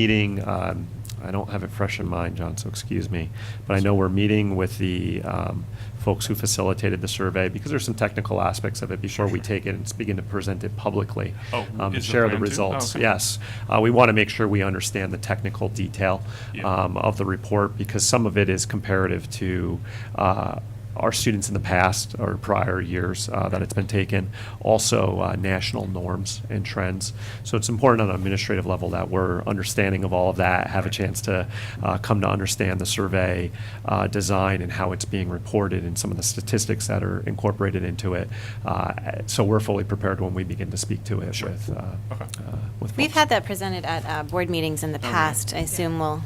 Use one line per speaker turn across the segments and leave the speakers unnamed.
meeting, um, I don't have it fresh in mind, John, so excuse me, but I know we're meeting with the um, folks who facilitated the survey, because there's some technical aspects of it before we take it and begin to present it publicly.
Oh,
um,
is the
Share the
plan to? Oh,
results,
okay.
yes. Uh, We want to make sure we understand the technical detail
Yeah.
um, of the report, because some of it is comparative to uh, our students in the past or prior years uh, that it's been taken, also uh, national norms and trends. So it's important on an administrative level that we're understanding of all of that, have a chance to uh, come to understand the survey uh, design and how it's being reported and some of the statistics that are incorporated into it. Uh, So we're fully prepared when we begin to speak to it with, uh,
Okay.
uh, with.
We've
folks.
had that presented at uh, board meetings in the
really?
past. I assume we'll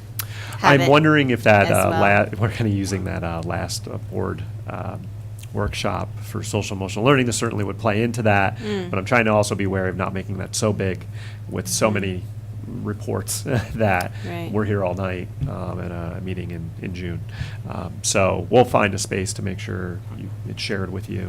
have
I'm
it
wondering if that,
as
uh,
well.
la- we're kind of using that uh, last uh, board um, workshop for social emotional learning, this certainly would play into that,
Mm.
but I'm trying to also be wary of not making that so big with so many reports that
Mm. Right.
we're here all night um, at a meeting in, in June. Um, So we'll find a space to make sure you- it's shared with you.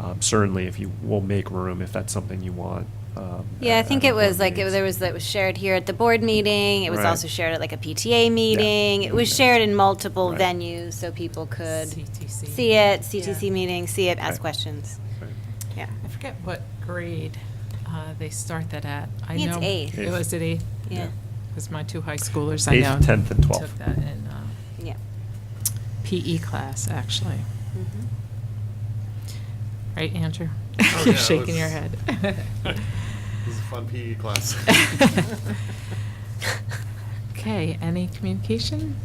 Um, Certainly, if you, we'll make room if that's something you want. um,
Yeah, I
at-
think
at
it
our board
was like, it-
meetings.
there was, that was shared here at the board meeting. It was
Right.
also shared at like a PTA meeting. It was
Yes.
shared in multiple
Right.
venues, so people could
CTC.
see it, CTC
Yeah.
meeting, see it, ask
Right.
questions.
Right.
Yeah.
I forget what grade uh, they start that at. I
I think it's
know
eighth.
It was at eighth.
Yeah,
Because my two high schoolers, I
Eighth,
know.
10th, and 12th.
Took that in uh,
yeah.
PE class, actually.
Mhm.
Right, Andrew?
Oh,
You're
yeah,
shaking your
it
head.
This is a fun PE class.
Okay, any communication?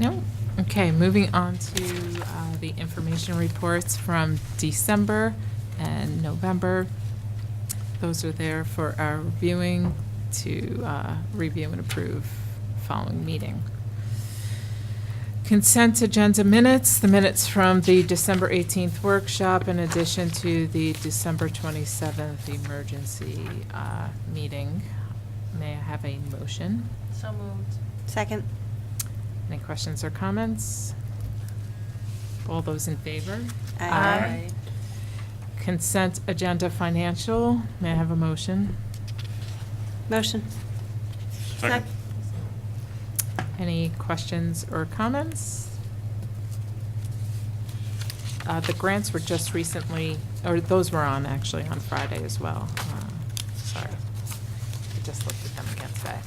No? Okay, moving on to uh, the information reports from December and November. Those are there for our reviewing to uh, review and approve following meeting. Consent agenda minutes, the minutes from the December 18th workshop in addition to the December 27th emergency uh, meeting. May I have a motion?
So moved.
Second?
Any questions or comments? All those in favor?
Aye.
Aye.
Consent agenda financial, may I have a motion?
Motion?
Second.
Any questions or comments? Uh, The grants were just recently, or those were on, actually, on Friday as well. Uh, Sorry. I just looked at them again today.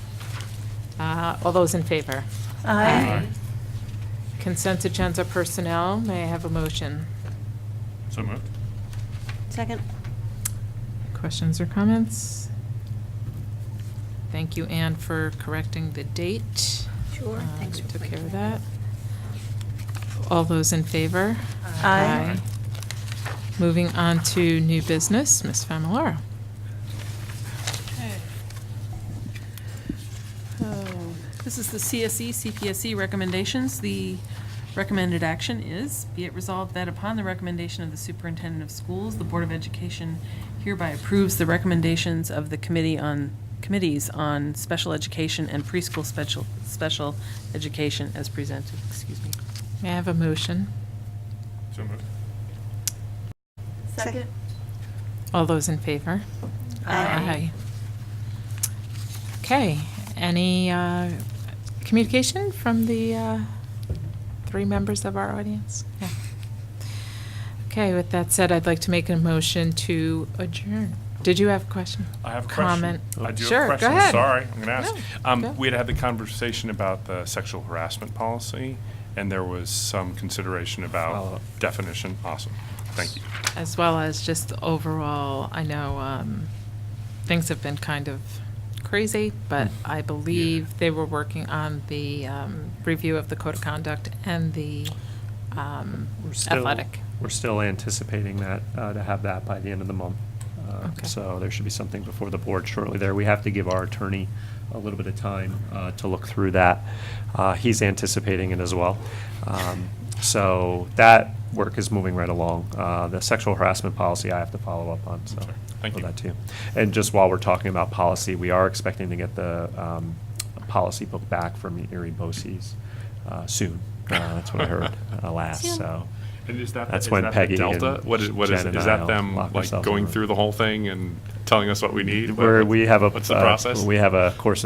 Uh, All those in favor?
Aye.
Consent agenda personnel, may I have a motion?
So moved.
Second?
Questions or comments? Thank you, Anne, for correcting the date.
Sure,
Uh,
thanks
We
for
took care of
pointing that
that. All those in favor?
Aye.
Moving on to new business, Ms. Familar.
Oh, This is the E, CSE, CPSC recommendations. The recommended action is, be it resolved that upon the recommendation of the superintendent of schools, the Board of Education hereby approves the recommendations of the committee on, committees on special education and preschool special, special education as presented, excuse me.
May I have a motion?
So moved.
Second.
All those in favor? Aye.
Aye.
Okay, any uh, communication from the uh, three members of our audience? Yeah. Okay, with that said, I'd like to make a motion to adjourn. Did you have a question?
I have a
Comment?
question. I do
Sure,
have a
go
question.
ahead.
Sorry, I'm going to ask.
No, go.
Um, We had had the conversation about the sexual harassment policy, and there was some consideration
Follow-up.
about definition. Awesome. Thank you.
As well as just the overall, I know um, things have been kind of crazy, but I believe they were working on the um, review of the code of conduct and the um,
We're still-
athletic.
We're still anticipating that, uh, to have that by the end of the month. Uh,
Okay.
So there should be something before the board shortly there. We have to give our attorney a little bit of time uh, to look through that. Uh, He's anticipating it as well. Um, So that work is moving right along. Uh, The sexual harassment policy I have to follow up on, so.
Okay. Thank
for
you.
that too. And just while we're talking about policy, we are expecting to get the um, policy book back from Erie Bosse's uh, soon. Uh, That's what I heard uh, last,
Soon.
so.
And is that,
That's
is
when
that
Peggy
the delta?
and
What is, what is,
Jen and
is
I
that
all
them
locked
like
ourselves in
going
the room.
through the whole thing and telling us what we need? What-
Where we have a.
What's the
uh,
process?
We have a course of